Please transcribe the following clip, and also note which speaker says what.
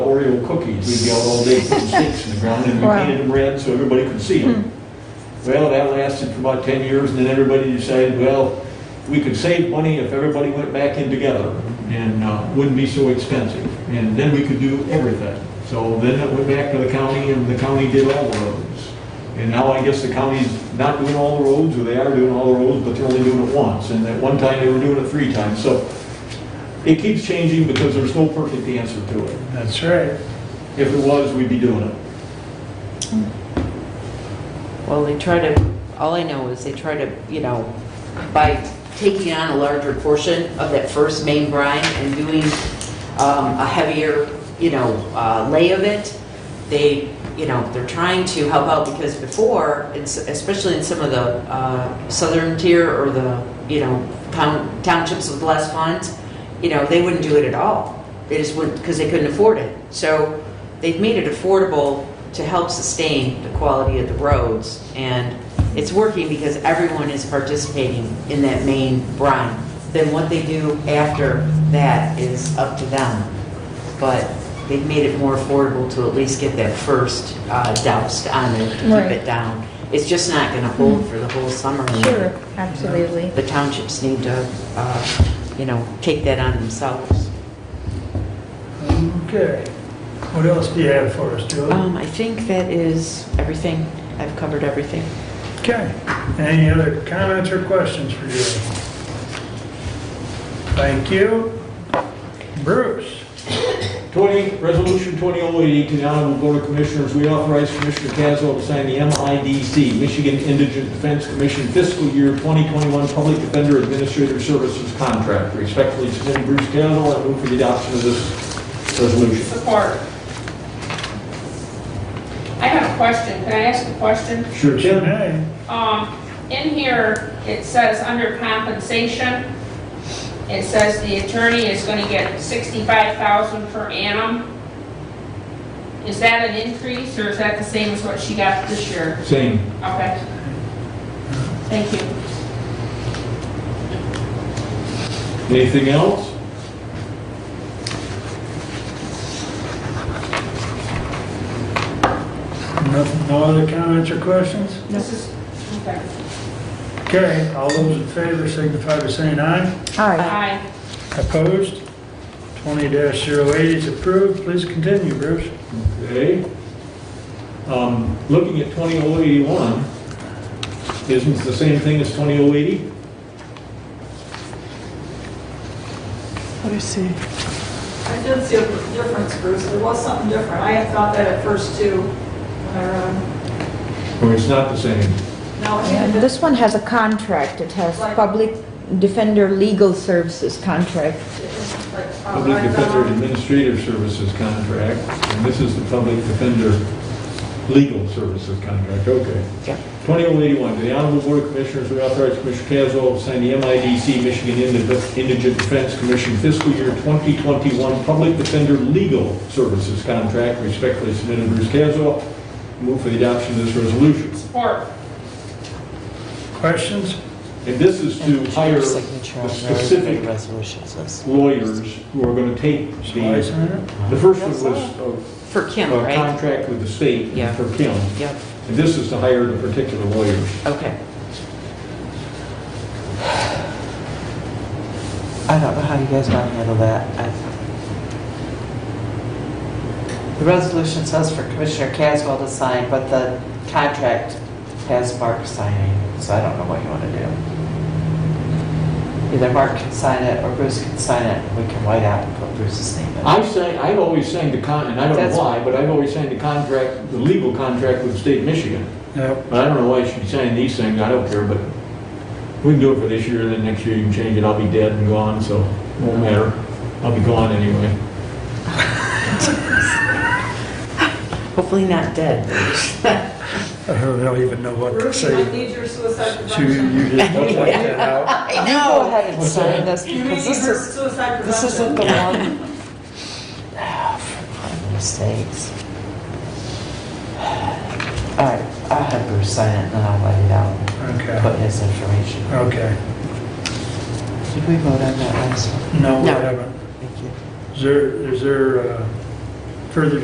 Speaker 1: Oreo cookies. We'd be out all day putting sticks in the ground and we
Speaker 2: Wow.
Speaker 1: painted them red so everybody could see them. Well, that lasted for about 10 years and then everybody decided, well, we could save money if everybody went back in together and uh, wouldn't be so expensive. And then we could do everything. So then it went back to the county and the county did all the roads. And now I guess the county's not doing all the roads, or they are doing all the roads, but they're only doing it once. And at one time, they were doing it three times. So it keeps changing because there's no perfect answer to it.
Speaker 3: That's right.
Speaker 1: If it was, we'd be doing it.
Speaker 4: Well, they try to, all I know is they try to, you know, by taking on a larger portion of that first main brine and doing um, a heavier, you know, uh, lay of it, they, you know, they're trying to help out because before, it's- especially in some of the uh, southern tier or the, you know, town- townships with less funds, you know, they wouldn't do it at all. They just wouldn't, because they couldn't afford it. So they've made it affordable to help sustain the quality of the roads. And it's working because everyone is participating in that main brine. Then what they do after that is up to them. But they've made it more affordable to at least get that first uh, doused on it, to
Speaker 2: Right. Hmm.
Speaker 4: keep it down. It's just not going to hold for the whole summer.
Speaker 2: Sure, absolutely.
Speaker 4: The townships need to, uh, you know, take that on themselves.
Speaker 3: Okay. What else do you have for us, Julie?
Speaker 4: Um, I think that is everything. I've covered everything.
Speaker 3: Okay. Any other comments or questions for Julie? Thank you. Bruce?
Speaker 1: 20, Resolution 2008, to the Honorable Board of Commissioners, we authorize Commissioner Caswell to sign the MIDC, Michigan Indigent Defense Commission Fiscal Year 2021 Public Defender Administrative Services Contract. Respectfully submitted, Bruce Caswell, I move for the adoption of this resolution.
Speaker 5: Support. I have a question, can I ask a question?
Speaker 3: Sure. Jim?
Speaker 5: Um, in here, it says under compensation, it says the attorney is gonna get sixty-five thousand per annum. Is that an increase, or is that the same as what she got this year?
Speaker 1: Same.
Speaker 5: Okay. Thank you.
Speaker 1: Anything else?
Speaker 3: No no other comments or questions?
Speaker 5: This is, okay.
Speaker 3: Okay, all those in favor signify by saying aye.
Speaker 2: Aye.
Speaker 5: Aye.
Speaker 3: Opposed? 20-08 is approved. Please continue, Bruce.
Speaker 1: Okay. Um, Looking at 20081, isn't it the same thing as 20080?
Speaker 6: Let me see.
Speaker 7: I did see a difference, Bruce, there was something different. I had thought that at first too. when I read 'em.
Speaker 1: Or it's not the same?
Speaker 7: No, it
Speaker 2: And
Speaker 7: didn't.
Speaker 2: this one has a contract. It has Public Defender Legal Services contract.
Speaker 7: It's like, uh,
Speaker 1: Public
Speaker 7: right
Speaker 1: Defender
Speaker 7: down.
Speaker 1: Administrative Services Contract, and this is the Public Defender Legal Services Contract, okay.
Speaker 4: Yep.
Speaker 1: 20081, to the Honorable Board of Commissioners, we authorize Commissioner Caswell to sign the MIDC Michigan Indi- Indigent Defense Commission Fiscal Year 2021 Public Defender Legal Services Contract, respectfully submitted Bruce Caswell. Move for the adoption of this resolution.
Speaker 5: Support.
Speaker 3: Questions?
Speaker 1: And this is to hire the
Speaker 4: Signature on there,
Speaker 1: specific
Speaker 4: resolutions. That's-
Speaker 1: lawyers who are going to take
Speaker 3: Shall I
Speaker 1: the,
Speaker 3: sign it?
Speaker 1: the first one was uh,
Speaker 4: For Kim,
Speaker 1: a
Speaker 4: right?
Speaker 1: contract with the state
Speaker 4: Yeah.
Speaker 1: for Kim.
Speaker 4: Yep,
Speaker 1: And this is to hire the particular lawyers.
Speaker 4: okay.
Speaker 8: I don't know how you guys want to handle that. I- The resolution says for Commissioner Caswell to sign, but the contract has Mark signing, so I don't know what you want to do. Either Mark can sign it, or Bruce can sign it, we can white out and put Bruce's name in.
Speaker 1: I say, I've always signed the con, and I don't know
Speaker 8: That's-
Speaker 1: why, but I've always signed the contract, the legal contract with the state of Michigan.
Speaker 3: Yep.
Speaker 1: But I don't know why she should be signing these things, I don't care, but we can do it for this year, and then next year you can change it, I'll be dead and gone, so it won't matter. I'll be gone anyway.
Speaker 4: Hopefully not dead.
Speaker 3: I don't even know what to
Speaker 7: Bruce, I
Speaker 3: say.
Speaker 7: need your suicide
Speaker 3: She-
Speaker 7: prevention.
Speaker 3: You just don't like that out.
Speaker 8: I know. Go ahead and sign this,
Speaker 7: You need
Speaker 8: because
Speaker 7: your
Speaker 8: this is,
Speaker 7: suicide prevention.
Speaker 8: this isn't the one. For Mistakes. All right, I'll have Bruce sign it, and then I'll white it out.
Speaker 3: Okay,
Speaker 8: put his information.
Speaker 3: okay.
Speaker 8: Did we vote on that last one?
Speaker 3: No, we
Speaker 4: No.
Speaker 3: haven't.
Speaker 8: Thank you.
Speaker 3: Is there, is there uh, further